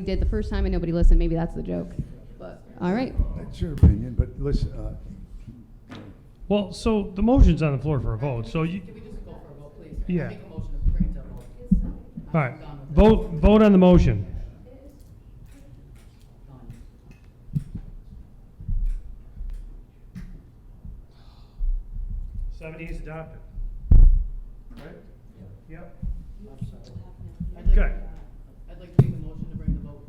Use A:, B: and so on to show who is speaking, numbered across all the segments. A: we did the first time and nobody listened. Maybe that's the joke. But all right.
B: That's your opinion, but listen, uh,
C: Well, so the motion's on the floor for a vote, so you,
D: Can we just go for a vote, please?
C: Yeah.
D: Make a motion to bring it to a vote.
C: all right, vote, vote on the motion.
D: Done.
C: Seventy is adopted. Right? Yep.
D: I'd like-
C: Okay.
D: I'd like to make a motion to bring the vote,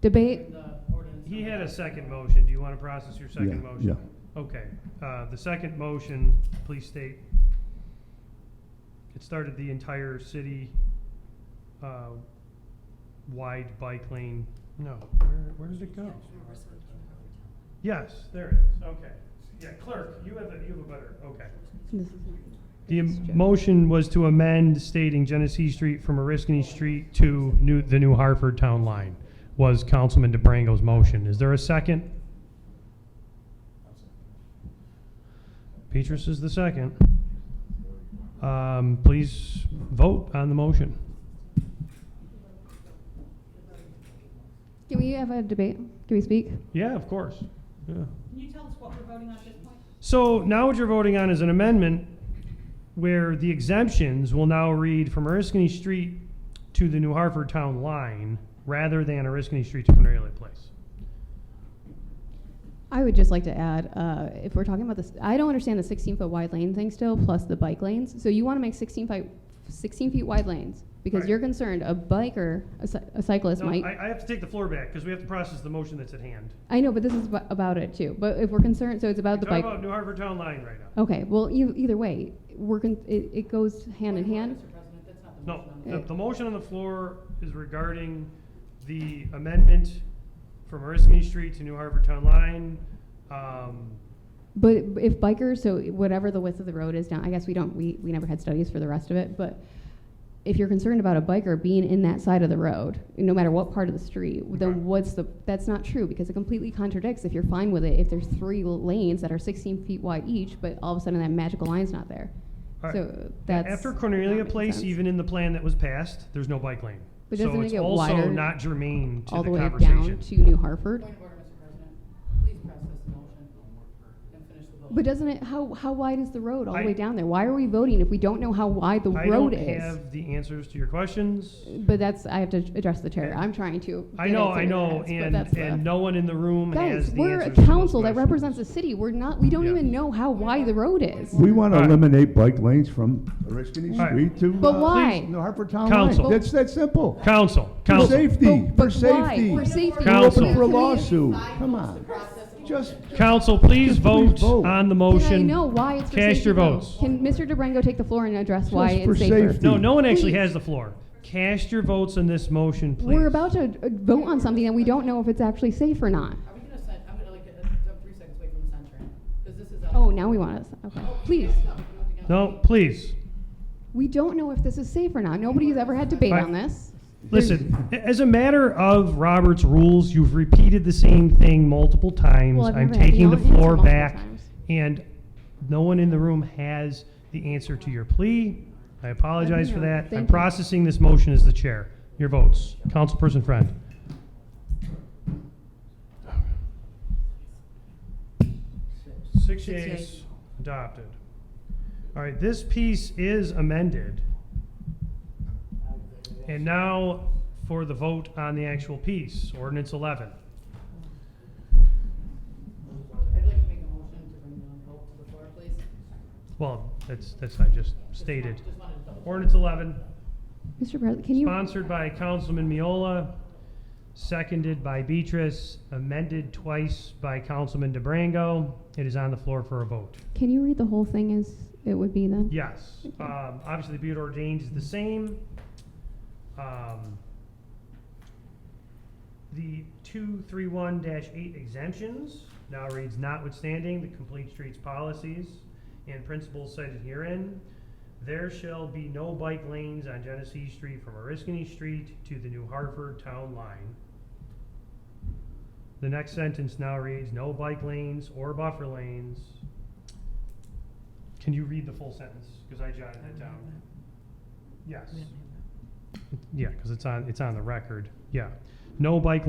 A: Debate.
D: bring the ordinance.
C: He had a second motion. Do you want to process your
B: Yeah,
C: second motion?
B: yeah.
C: Okay, uh, the second motion, please state. It started the entire city, uh, wide bike lane. No, where, where does it go? Yes, there it is. Okay. Yeah, clerk, you have a, you have a better, okay. The m- motion was to amend stating Genesee Street from Oriskany Street to new, the new Hartford Town Line was Councilman DeBrango's motion. Is there a second? Petrus is the second. Um, please vote on the motion.
A: Can we have a debate? Can we speak?
C: Yeah, of course. Yeah.
E: Can you tell us what we're voting on at this point?
C: So now what you're voting on is an amendment where the exemptions will now read from Oriskany Street to the New Hartford Town line rather than Oriskany Street to Cornelia Place.
A: I would just like to add, uh, if we're talking about this, I don't understand the 16 foot wide lane thing still, plus the bike lanes. So you want to make 16 feet, 16 feet wide lanes because
C: Right.
A: you're concerned a biker, a, cy- a cyclist
C: No,
A: might.
C: I, I have to take the floor back because we have to process the motion that's at hand.
A: I know, but this is ab- about it too. But if we're concerned, so it's about the
C: Talk
A: bike.
C: about New Hartford Town line right now.
A: okay. Well, e- either way, we're con- it, it goes hand in hand.
D: Mr. President, that's not
C: No,
D: the motion on the.
C: the,
A: Okay.
C: the motion on the floor is regarding the amendment from Oriskany Street to New Hartford Town line. Um,
A: But if bikers, so whatever the width of the road is now, I guess we don't, we, we never had studies for the rest of it, but if you're concerned about a biker being in that side of the road, no matter what part of the street,
C: Right.
A: then what's the, that's not true, because it completely contradicts if you're fine with it, if there's three lanes that are sixteen feet wide each, but all of a sudden that magical line's not there.
C: all right.
A: So
C: Yeah,
A: that's.
C: After
A: that
C: Cornelia
A: makes
C: Place,
A: sense.
C: even in the plan that was passed, there's no bike lane.
A: But doesn't it get
C: So it's also
A: wider
C: not germane to
A: All the
C: the
A: way down
C: conversation.
A: to New Hartford.
D: Point of order, Mr. President. Please process the motion and finish the vote.
A: But doesn't it, how, how wide is the road all
C: I-
A: the way down there? Why are we voting if we don't know how wide the
C: I
A: road
C: don't
A: is? Uh,
C: have the answers to your questions.
A: But that's, I have to address the chair. I'm trying to.
C: I
A: get
C: know,
A: it to
C: I
A: the
C: know,
A: minutes, but
C: and,
A: that's the-
C: and no one in the room has
A: Guys,
C: the
A: we're a
C: answers to those
A: council that
C: questions.
A: represents the city. We're not, we don't
C: Yeah.
A: even know how wide the road is.
B: we want to
C: All right.
B: eliminate bike lanes from Oriskany
C: All right.
B: Street to.
A: But
B: uh,
A: why?
B: Please, New Hartford Town
C: Council.
B: Line. That's that simple.
C: Council,
B: For
C: council,
B: safety,
A: But-
B: for
A: but why?
B: safety.
A: For safety.
B: We're
C: Council.
B: open for a lawsuit. Come on. Just,
C: council, please
B: Just please
C: vote
B: vote.
C: on the
A: Can
C: motion.
A: I know why it's for safety?
C: Cast your
A: though?
C: votes.
A: Can Mr. DeBrango take the floor and address why
B: Just for
A: it's safer?
B: safety.
C: No, no one actually
A: Please.
C: has the floor. Cast your votes on this motion, please.
A: We're about to uh, vote on something that we don't know if it's actually safe or not.
D: Are we gonna send, I'm gonna like, uh, jump three seconds away from censoring, because this is. a- Oh,
A: Oh, now we want us, okay. Please,
D: No, we don't think-
C: No, please.
A: we don't know if this is safe or not. Nobody's ever had debate
C: Right.
A: on this.
C: Listen, a- as a matter of Robert's rules, you've repeated the same thing multiple times.
A: Well, I've
C: I'm
A: never had
C: taking
A: the
C: the floor
A: answer multiple
C: back,
A: times.
C: and no one in the room has the answer to your plea. I apologize for
A: know.
C: that. I'm
A: Thank you.
C: processing this motion as the chair. Your votes. Councilperson Friend. Six yeas, adopted. All right, this piece is amended. And now for the vote on the actual piece, ordinance 11.
D: I'd like to make a motion to bring the vote to the floor, please.
C: Well, that's, that's, I just stated.
D: Just wanted to double.
C: Ordinance 11,
A: Mr. President, can you?
C: sponsored by Councilman Miola, seconded by Beatrice, amended twice by Councilman DeBrango. It is on the floor for a vote.
A: Can you read the whole thing as it would be then?
C: Yes. Um, obviously, be it ordained is the same. Um, the 231 8 exemptions now reads notwithstanding the complete streets policies and principles cited herein, there shall be no bike lanes on Genesee Street from Oriskany Street to the New Hartford Town Line. The next sentence now reads no bike lanes or buffer lanes can you read the full sentence? Because I jotted it down. Yes. Yeah, because it's on, it's on the record, yeah. no bike